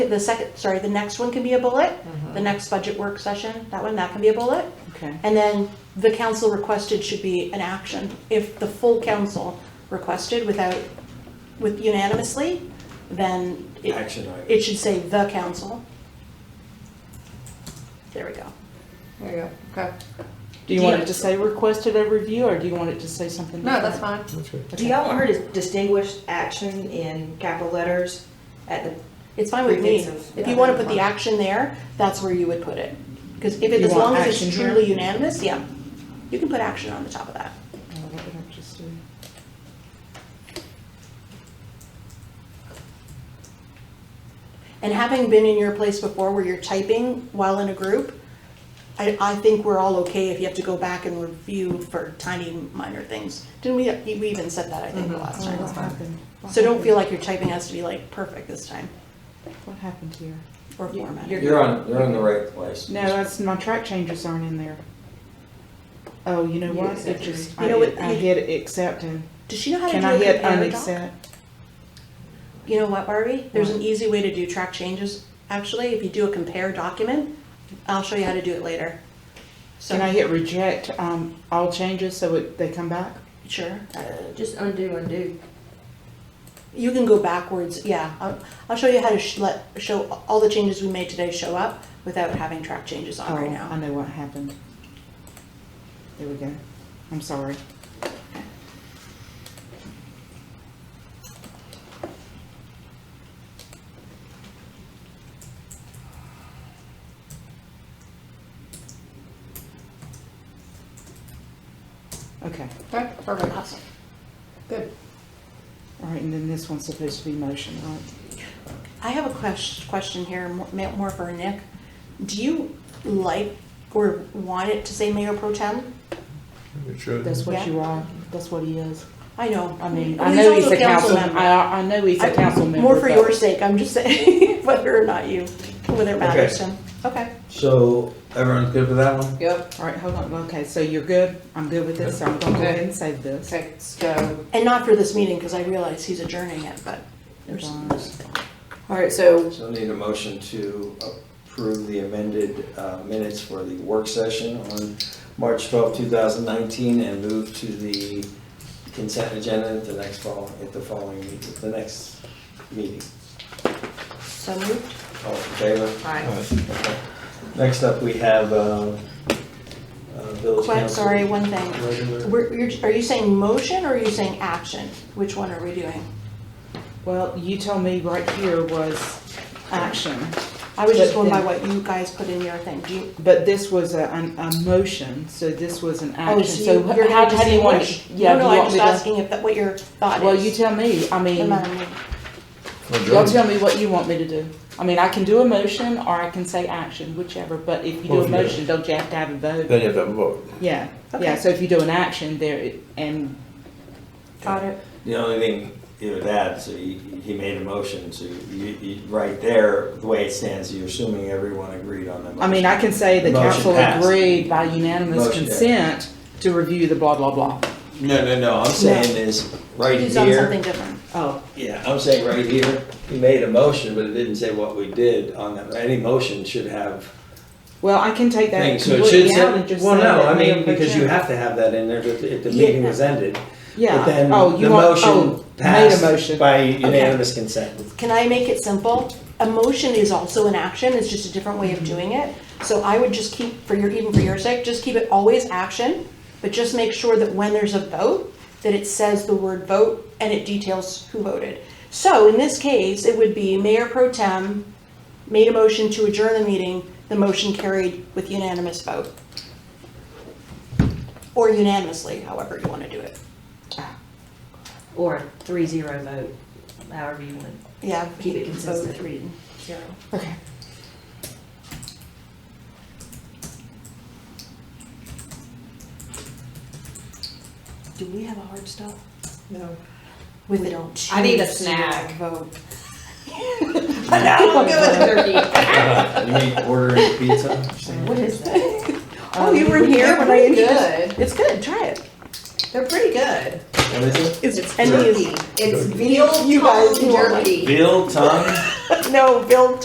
The second, sorry, the next one can be a bullet, Mm-hmm. the next budget work session, that one, that can be a bullet. Okay. And then the council requested should be an action. If the full council requested without, with unanimously, then it, Action item. it should say the council. There we go. There you go, okay. Do you want it to say requested a review, or do you want it to say something? No, that's different? fine. That's good. Do y'all want her to distinguish action in capital letters at the, It's fine with me. Preventive, If yeah. you want to put the action there, that's where you would put it. Because if it, You as want long as action it's here? truly unanimous, yeah, you can put action on the top of that. Oh, what did I just do? And having been in your place before where you're typing while in a group, I, I think we're all okay if you have to go back and review for tiny minor things. Didn't we, we even said that, I think, the last Oh, what time. happened? What So don't feel happened? like your typing has to be like perfect this time What happened here? or You- formatted. you're- You're on, you're in the right place. No, that's, my track changes aren't in there. Oh, you know what? It just, I You know hit, what, I you- hit accept and, Does she know how to can do I a hit compare doc? unaccept? You know what, Barbie? There's an easy way to do track changes. Actually, if you do a compare document, I'll show you how to do it later. So, Can I hit reject, um, all changes so it, they come back? sure. Just undo, undo. You can go backwards, yeah. I'll, I'll show you how to sh- let, show all the changes we made today show up without having track changes on right Oh, I now. know what happened. There we go. I'm sorry. Okay, Okay, perfect. Good. all right, and then this one's supposed to be motion, right? I have a ques- question here, mo- ma- more for Nick. Do you like or want it to say mayor pro tem? It should. That's Yeah. what you are, that's what he is. I know. I mean, Well, I know he's also a council, member. I, I know he's a I- council member. More for but- your sake, I'm just saying, whether or not you, whether it matters to Okay. him. Okay. So everyone's good with that one? Yep, All right, hold on, okay, so you're good? I'm good with this, so I'm gonna go ahead and save this. okay, let's go. And not for this meeting, because I realize he's adjourning it, but there's, All right, so, So I need a motion to approve the amended uh, minutes for the work session on March twelfth, two 2019, and move to the consent agenda at the next fall, at the following, meet- the next meeting. so moved. All in favor? fine. Okay. Next up, we have uh, uh, village Quite, council. sorry, one thing. Regular. We're, you're, are you saying motion or are you saying action? Which one are we doing? Well, you told me right here was action, I was just But going by then- what you guys put in your thing. Do you, but this was a, an- a motion, so this was an oh, action, so so you- you're how, not how do you want? distinguish? it? Yeah, No, do no, you I'm want just me to- asking if, that what your thought is. Well, you tell me, I No mean, matter what. y'all tell me what you want me to do. I mean, I can do a motion or I can say action, whichever, but if you do Well, a if you do- motion, don't you have to have a vote? Then you have to have a vote. Yeah, yeah, Okay. so if you do an action there, it- and Got it. The only thing, you know, that, so he, he made a motion, so you, you, right there, the way it stands, you're assuming everyone agreed on the motion. I mean, I can say the Motion council passed. agreed by unanimous Motion, yeah. consent to review the blah, blah, blah. No, no, no, I'm saying is, right He's on something here, different. Oh, yeah, I'm saying right here, he made a motion, but it didn't say what we did on that. Any motion should have well, I can take that things, so it should completely out and say, just say well, no, I that Mayor mean, Pro because you Tem- have to have that in there, that if the Yeah. meeting was ended. But Yeah, then oh, the you want, oh, motion made a passed motion. by unanimous consent. Can I make it simple? A motion is also an action, it's just a different way of doing it. So I would just keep, for your, even for your sake, just keep it always action, but just make sure that when there's a vote, that it says the word vote and it details who voted. So in this case, it would be Mayor Pro Tem made a motion to adjourn the meeting, the motion carried with unanimous vote. Or unanimously, however you want to do it. Or a three zero vote, however you want. Yeah. Keep it consistent. Vote three, zero. Okay. Do we have a hard stop? No. With a I need two-zero a snack. Vote. I'm good with turkey. You mean ordering pizza? What is that? Oh, you were here when I introduced. Good, It's good. Try it. they're pretty good. What is it? It's It's and turkey, it's veal You guys, tongue you are like- jerky. Veal tongue? No, Bill